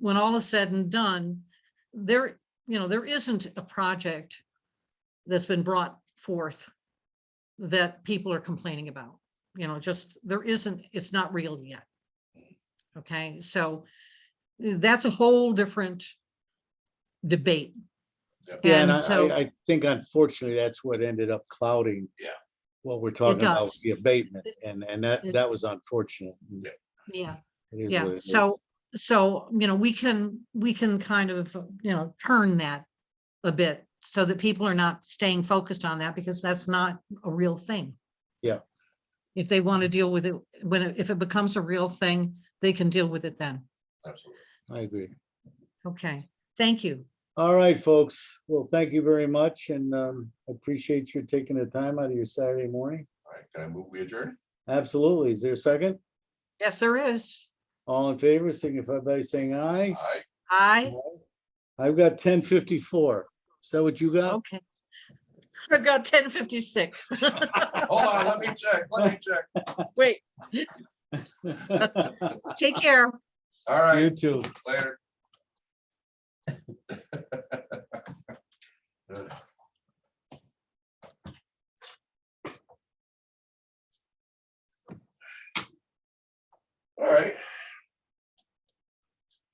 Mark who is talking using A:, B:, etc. A: when all is said and done, there, you know, there isn't a project that's been brought forth that people are complaining about, you know, just, there isn't, it's not real yet. Okay, so that's a whole different debate.
B: Yeah, and
A: And
B: I,
A: so-
B: I- I think unfortunately, that's what ended up clouding.
C: Yeah.
B: What we're talking about, with
A: does.
B: the abatement, and, and that,
A: It-
B: that was unfortunate.
C: Yeah.
A: Yeah.
B: It is
A: Yeah,
B: what it is.
A: so, so, you know, we can, we can kind of, you know, turn that a bit so that people are not staying focused on that because that's not a real thing.
B: Yeah.
A: If they want to deal with it, when, it- if it becomes a real thing, they can deal with it then.
C: Absolutely.
B: I agree.
A: Okay, thank you.
B: All right, folks. Well, thank you very much and, um, appreciate you taking the time out of your Saturday morning.
C: All right, can I move, we adjourn?
B: Absolutely. Is there a second?
A: Yes, there is.
B: All in favor, signify by saying aye.
C: Aye.
A: I,
B: I've got ten fifty-four. Is that what you got?
A: okay. I've got ten fifty-six.
C: Hold on, let me check, let me check.
A: Wait, take care.
C: All
B: You
C: right,
B: too.
C: later.